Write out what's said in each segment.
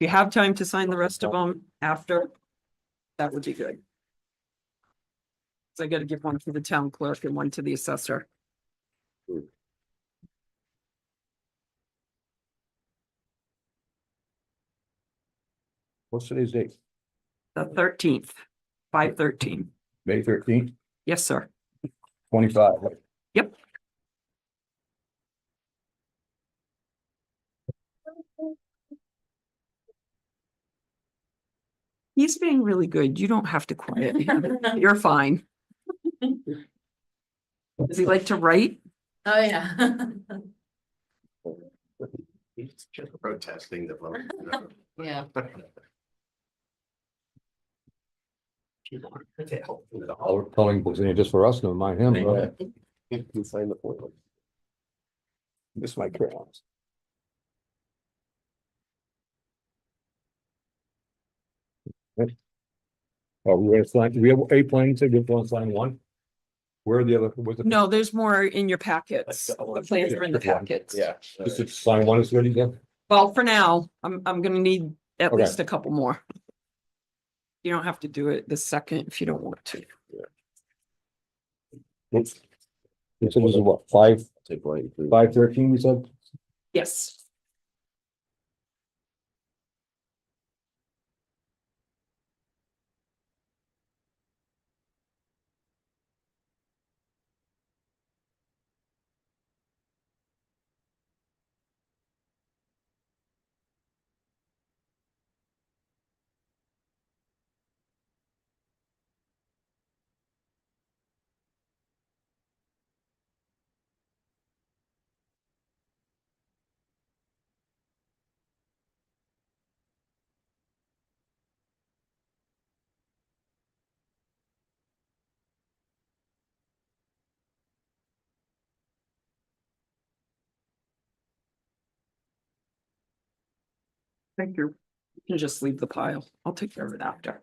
you have time to sign the rest of them after, that would be good. So I gotta give one to the town clerk and one to the assessor. What's today's date? The thirteenth, five thirteen. May thirteenth, Yes, sir. twenty-five. Yep. He's being really good. You don't have to quiet him. You're fine. Does he like to write? Oh, yeah. He's just protesting the vote. you know. Yeah. She wanted to help with the All whole- calling books in here just for us, never mind him. right? You can sign the form. This might carry on. Are Oh, we ready to sign, we have a plan, so we have one sign one? Where are the other, where's the? No, there's more in your packets. The plans are in the packets. Yeah. Just to sign one is ready then? Well, for now, I'm, I'm gonna need at Okay. least a couple more. You don't have to do it the second if you don't want to. It's, it's, it was what, five, Take one, three. five thirteen, we said? Yes. Thank you. You can just leave the pile. I'll take care of it after.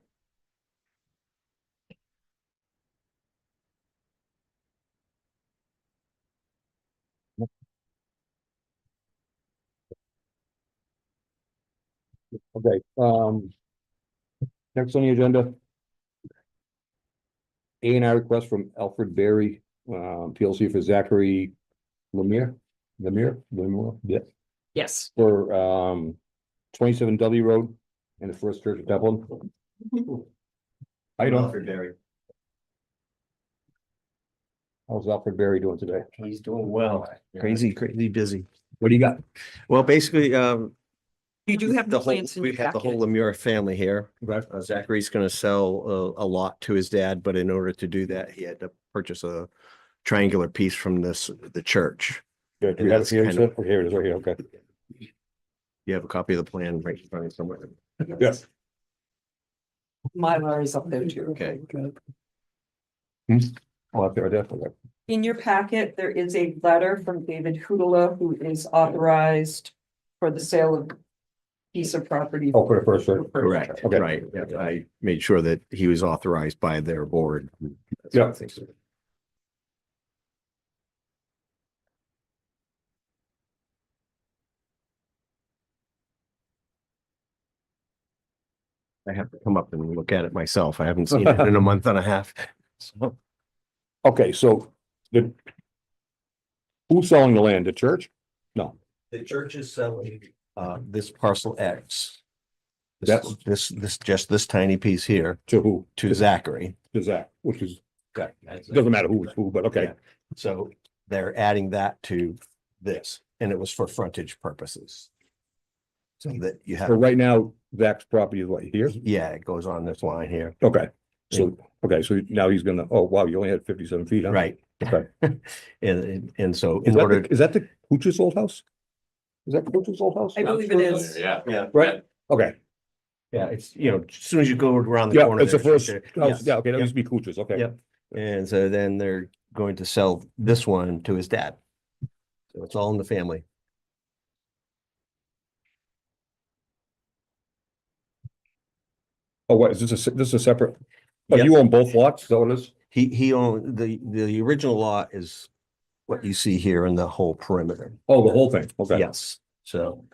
Okay, um. Next on the agenda. A and I request from Alfred Berry, um, PLC for Zachary Lemire, Lemire, Lemire, yeah, Yes. for, um, twenty-seven W Road and the First Church of Dublin. How you doing? Barry. How's Alfred Berry doing today? He's doing well. Crazy, crazy busy. What do you got? Well, basically, um, You do have the the whole, plans in we your have the whole packet. Lemura family here. Right. Uh, Zachary's gonna sell a, a lot to his dad, but in order to do that, he had to purchase a triangular piece from this, the church. Good. And that's Here it is, kind of- here it is, right here, okay. You have a copy of the plan right in front of you somewhere. Yes. Mylar is up there too. Okay. Oh, up there, definitely. In your packet, there is a letter from David Hudala, who is authorized for the sale of piece of property. Oh, for the First Church. Correct, Okay. right. Yeah, I made sure that he was authorized by their board. That's Yeah. what I think. I have to come up and look at it myself. I haven't seen it in a month and a half. So, Okay, so the. Who's selling the land? The church? No. The church is selling uh this parcel X. This- That's- This, this, just this tiny piece here To who? to Zachary. To Zach, which is, it doesn't matter who is who, but okay, Yeah. So they're adding that to this, and it was for frontage purposes. So that you so have, right now, Zach's property is what, here? yeah, it goes on this line here, Okay, so, okay, so now he's gonna, oh, wow, you only had fifty-seven feet, huh? right? Okay. And, and, and so Is in that, order, the- is that the Cooch's old house? Is that Cooch's old house? I believe it is. Yeah. yeah, Right, okay, yeah, it's, you know, as soon as you go around the yeah, corner. it's the there's- first, yeah, house. yeah, okay, that yeah. used to be Cooch's, okay. Yep. And so then they're going to sell this one to his dad. So it's all in the family. Oh, what, is this a, se- this is a separate, oh, Yep. you own both lots, so it is? He, he owned, the, the original lot is what you see here in the whole perimeter. Oh, the whole thing, okay. Yes, so